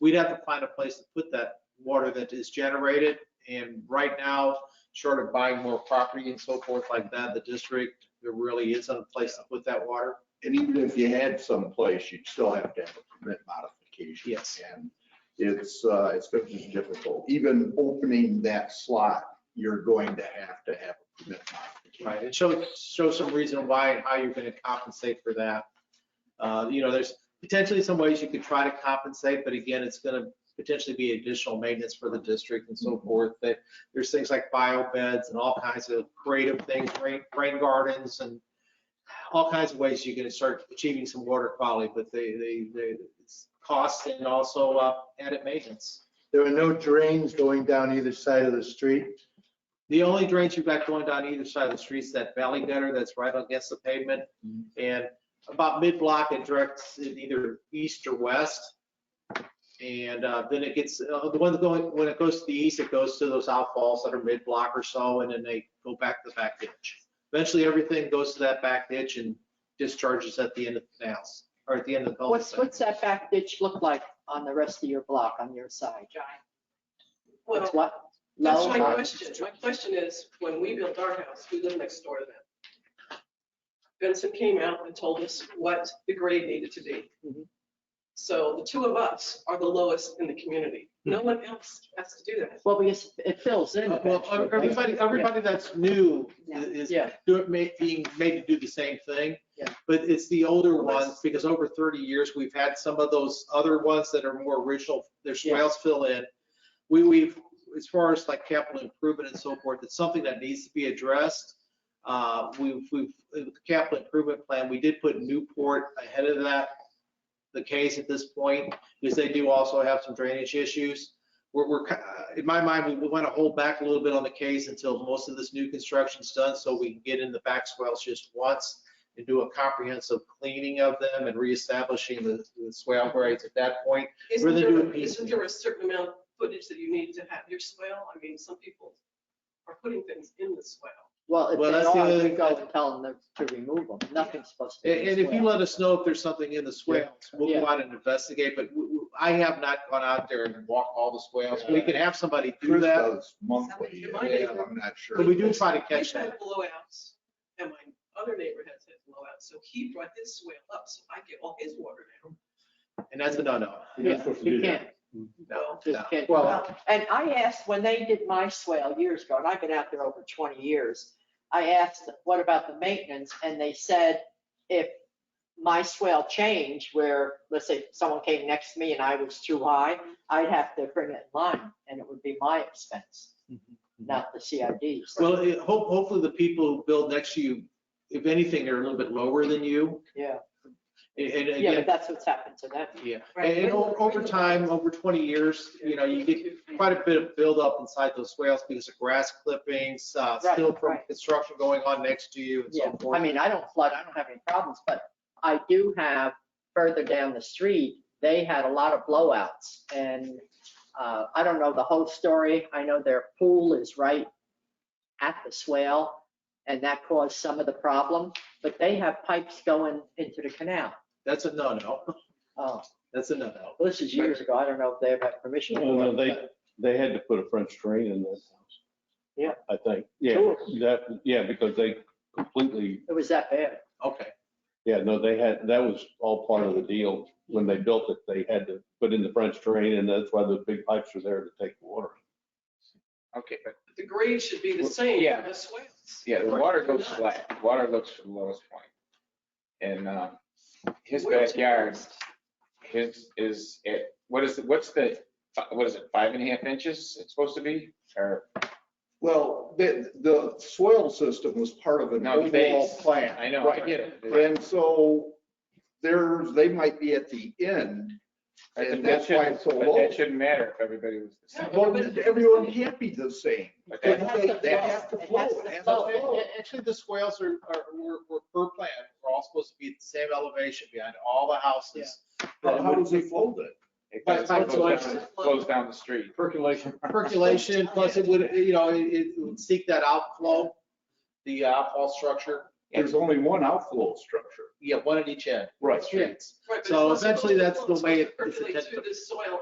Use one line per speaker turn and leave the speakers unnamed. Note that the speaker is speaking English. we'd have to find a place to put that water that is generated. And right now, short of buying more property and so forth like that, the district, there really isn't a place to put that water.
And even if you had someplace, you'd still have to have a permit modification.
Yes.
And it's, uh, it's going to be difficult. Even opening that slot, you're going to have to have a permit modification.
Right, and show, show some reason why and how you're gonna compensate for that. Uh, you know, there's potentially some ways you could try to compensate, but again, it's gonna potentially be additional maintenance for the district and so forth. That there's things like bio beds and all kinds of creative things, rain, rain gardens and all kinds of ways you can start achieving some water quality, but they, they, they, it's cost and also, uh, added maintenance.
There are no drains going down either side of the street.
The only drains you've got going down either side of the street is that valley gutter that's right against the pavement. And about mid-block, it directs it either east or west. And uh, then it gets, uh, the one going, when it goes to the east, it goes to those outfalls that are mid-block or so, and then they go back to the back ditch. Eventually, everything goes to that back ditch and discharges at the end of the canals, or at the end of the
What's,
cul-de-sac.
what's that back ditch look like on the rest of your block on your side?
Well,
It's what?
that's
low?
my question. My question is, when we built our house, we lived next door to them. Vincent came out and told us what the grade needed to be.
Mm-hmm.
Mhm.
So the two of us are the lowest in the community.
Mm-hmm.
No one else has to do that.
Well, because it fills in
Well,
eventually.
everybody, everybody that's new is
Yeah,
do it, ma- being made to do the same thing.
Yeah.
But it's the older
Well, that's-
ones, because over 30 years, we've had some of those other ones that are more original, their
Yeah.
swales fill in. We, we've, as far as like capital improvement and so forth, it's something that needs to be addressed. Uh, we've, we've, with the capital improvement plan, we did put Newport ahead of that, the case at this point, because they do also have some drainage issues we're, we're, ki- uh, in my mind, we- we want to hold back a little bit on the case until most of this new construction's done, so we can get in the back swales just once and do a comprehensive cleaning of them and reestablishing the, the swale grades at that point.
Isn't
Really
there-
doing piecemeal.
Isn't there a certain amount of footage that you need to have your swale? I mean, some people are putting things in the swale.
well, if
Well,
they
that's the
are,
other-
we go and tell them to to remove them. Nothing's supposed to
And,
be. in
and if you
swale.
let us know if there's something in the swales, we'll go
Yeah.
out and investigate, but we- we- I have not gone out there and walked all the swales. We can have somebody do
Bruce
that,
does monthly,
Something to mind.
I'm not sure.
but we do try to
I
catch that.
had blowouts, and my other neighbor has had blowouts, so he brought his swale up, so I get all his water now.
And that's a no-no.
You're not supposed to
You
do that.
can't,
No,
No.
just can't.
Well-
And I asked, when they did my swale years ago, and I've been out there over 20 years, I asked, what about the maintenance? And they said, if my swale changed, where, let's say, someone came next to me and I was too high, I'd have to bring it in line, and it would be my expense, not the CID's.
Well, it- hope, hopefully the people who build next to you, if anything, are a little bit lower than you.
Yeah,
And and
yeah,
again,
but that's what's happened to them.
yeah,
Right.
and and o- over time, over 20 years, you know, you get quite a bit of buildup inside those swales because of grass clippings, uh,
Right,
still from
right.
construction going on next to you and
Yeah,
so
I
forth.
mean, I don't flood, I don't have any problems, but I do have further down the street, they had a lot of blowouts. And uh, I don't know the whole story. I know their pool is right at the swale and that caused some of the problem, but they have pipes going into the canal.
That's a no-no.
Oh,
That's a no-no.
well, this is years ago. I don't know if they have had permission.
No,
for
no,
it,
they,
but-
they had to put a French drain in this house.
Yeah.
I think, yeah,
Sure.
that, yeah, because they completely,
It was that bad.
Okay.
yeah, no, they had, that was all part of the deal. When they built it, they had to put in the French drain and that's why the big pipes were there to take the water.
Okay, but
The grade should be the same
Yeah.
for the swales.
yeah, the water goes flat, water looks for the lowest point. And um, his backyard, his is, it. what is, what's the, fi- what is it, five and a half inches it's supposed to be? Or,
Well, the, the soil system was part of an
No,
overall
base.
plan.
I know, I
Right.
get it.
And so there's, they might be at the end, and
But
that's
that
why it's
shouldn't,
so
but
low.
that shouldn't matter if everybody was the same.
Well, everyone can't be the same.
But
They
that-
have they have to
It has to
flow.
flow.
It has to
Oh,
Actually,
flow.
actually, the swales are, are, were, were per plan. We're all supposed to be at the same elevation behind all the houses.
How how does it flow then?
It
But-
goes
but-
goes down- goes down the street.
Percolation.
Percolation, plus it would, you know, it, it would seek that outflow, the outfall structure.
There's only one outflow structure.
Yeah, one at each end.
Right.
Streets.
Right, but
So
it's not
essentially,
supposed
that's
to
the way it- it's
percolate
intended to-
Through the soil